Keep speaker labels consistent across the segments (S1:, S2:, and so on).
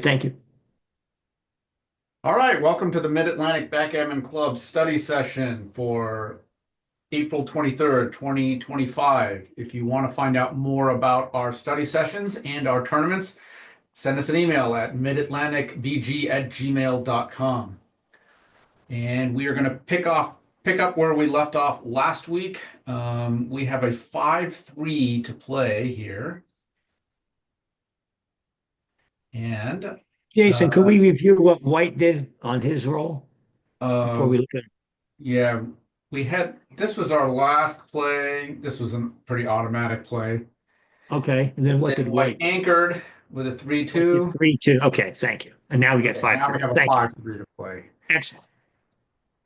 S1: Thank you.
S2: All right, welcome to the Mid-Atlantic Backgammon Club study session for April 23rd, 2025. If you want to find out more about our study sessions and our tournaments, send us an email at midatlanticbg@gmail.com. And we are going to pick off pick up where we left off last week. Um, we have a 5-3 to play here. And
S1: Jason, could
S2: Uh,
S1: we review what White did on his roll before
S2: um,
S1: we look at?
S2: Yeah, we had this was our last play. This was a pretty automatic play.
S1: Okay, and then what
S2: Then
S1: did
S2: White
S1: White?
S2: anchored with a three
S1: what did
S2: two.
S1: Three, two. Okay, thank you. And now we get five.
S2: Now we
S1: three.
S2: have a
S1: Thank you.
S2: five three to play.
S1: Excellent.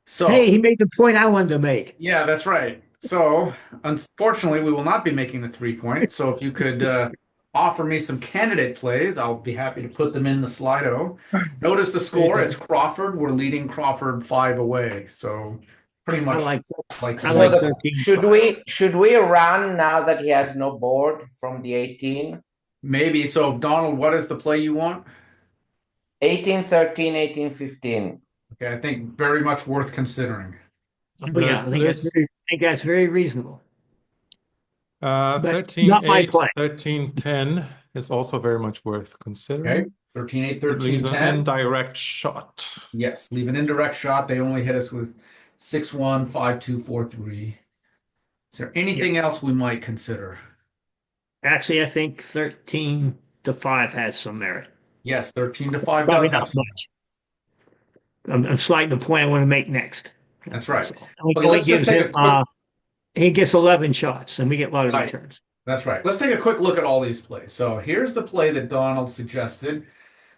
S2: So
S1: Hey, he made the point I wanted to make.
S2: yeah, that's right. So unfortunately, we will not be making the three point. So if you could uh, offer me some candidate plays, I'll be happy to put them in the Slido. Notice the score. It's Crawford. We're leading Crawford five away. So pretty
S1: I
S2: much
S1: like,
S2: like
S1: I
S3: So
S1: like
S3: the-
S1: thirteen.
S3: Should we should we run now that he has no board from the 18?
S2: maybe. So Donald, what is the play you want?
S3: 18, 13, 18, 15.
S2: Okay, I think very much worth considering.
S1: Oh, yeah, I think that's
S4: This-
S1: very, I think that's very reasonable.
S4: Uh,
S1: But
S4: 13,
S1: not my
S4: 8,
S1: play.
S4: 13, 10 is also very much worth considering.
S2: Okay,
S1: Mm-hmm.
S2: 13, 8,
S4: It
S2: 13,
S4: leaves an
S2: 10.
S4: indirect shot.
S2: Yes, leave an indirect shot. They only hit us with 6, 1, 5, 2, 4, 3. Is there anything else we might consider?
S1: Actually, I think thirteen to five has some merit.
S2: Yes, 13 to 5
S1: Probably
S2: does have
S1: not
S2: some.
S1: much. I'm, I'm sliding the point I want to make next.
S2: That's right.
S1: Only-
S2: Okay,
S1: only
S2: let's just
S1: gives
S2: take a
S1: him,
S2: quick-
S1: uh, He gets eleven shots and we get lottery
S2: Right.
S1: returns.
S2: That's right. Let's take a quick look at all these plays. So here's the play that Donald suggested.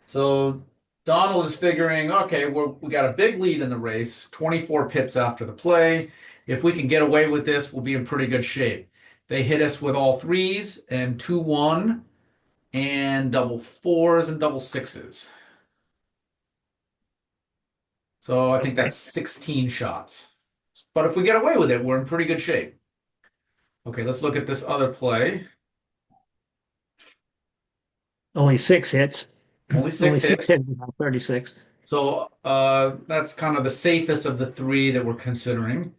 S2: So Donald is figuring, okay, we're, we got a big lead in the race, 24 pips after the play. If we can get away with this, we'll be in pretty good shape. They hit us with all threes and two one and double fours and double sixes. So I think that's 16 shots. But if we get away with it, we're in pretty good shape. Okay, let's look at this other play.
S1: Only six hits.
S2: Only
S1: Only
S2: six
S1: six
S2: hits.
S1: hits, about thirty-six.
S2: So uh, that's kind of the safest of the three that we're considering.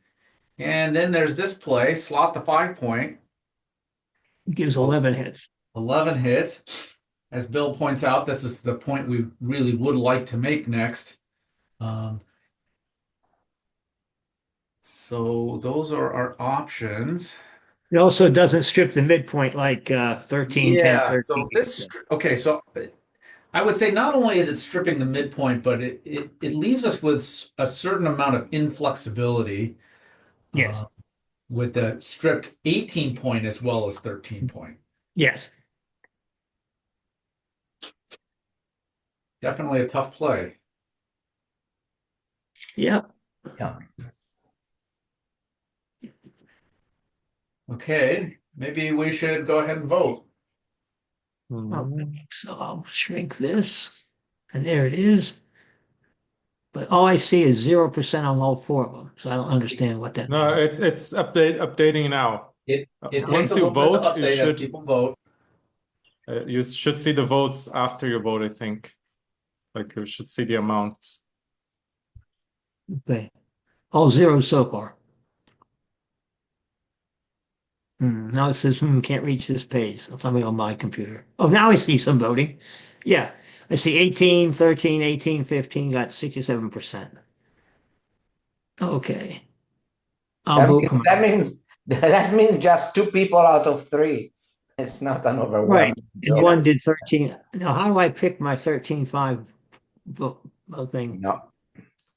S2: And then there's this play, slot the five point,
S1: Gives
S2: Oh.
S1: eleven hits.
S2: 11 hits. As Bill points out, this is the point we really would like to make next. Um, so those are our options.
S1: It also doesn't strip the midpoint like uh, 13, 10,
S2: Yeah,
S1: 13.
S2: so this, stri- okay, so I would say not only is it stripping the midpoint, but it, it, it leaves us with s- a certain amount of inflexibility.
S1: Yes.
S4: Uh-huh.
S2: uh, with the stripped 18 point as well as 13 point.
S1: Yes.
S2: Definitely a tough play.
S1: Yeah.
S2: Okay, maybe we should go ahead and vote.
S4: Hmm.
S1: Um, So I'll shrink this. And there it is. But all I see is 0% on all four of them. So I don't understand what that
S4: No,
S1: means.
S4: it's it's update updating now.
S2: It-
S4: Uh,
S2: It takes
S4: Once
S2: a
S4: you
S2: little bit to
S4: vote, you
S2: update as
S4: should
S2: people vote.
S4: uh, you should see the votes after you vote, I think. Like you should see the amounts.
S1: Okay. All zeros so far. Hmm, now it says, hmm, can't reach this page. It's something on my computer. Oh, now I see some voting. Yeah. I see 18, 13, 18, 15 got 67%. Okay. I'll
S3: That
S1: vote
S3: means,
S1: for
S3: that
S1: my-
S3: means that means just two people out of three. It's not an overwhelming.
S1: and
S3: joke.
S1: one did 13. Now, how do I pick my 13, 5 vote, vote thing?
S3: No.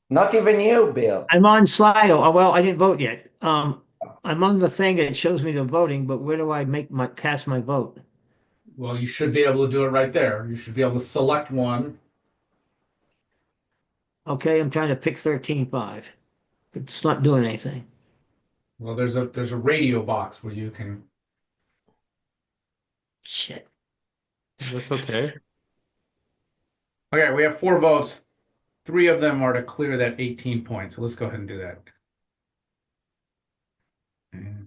S3: Not even you, Bill.
S1: I'm on Slido. Oh, well, I didn't vote yet. Um, I'm on the thing that shows me the voting, but where do I make my cast my vote?
S2: Well, you should be able to do it right there. You should be able to select one.
S1: Okay, I'm trying to pick thirteen five. It's not doing anything.
S2: Well, there's a there's a radio box where you can.
S1: Shit.
S4: That's okay.
S2: Okay, we have four votes. Three of them are to clear that 18 point. So let's go ahead and do that. And-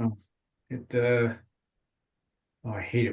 S2: Oh, Hit the. Oh, I hate it.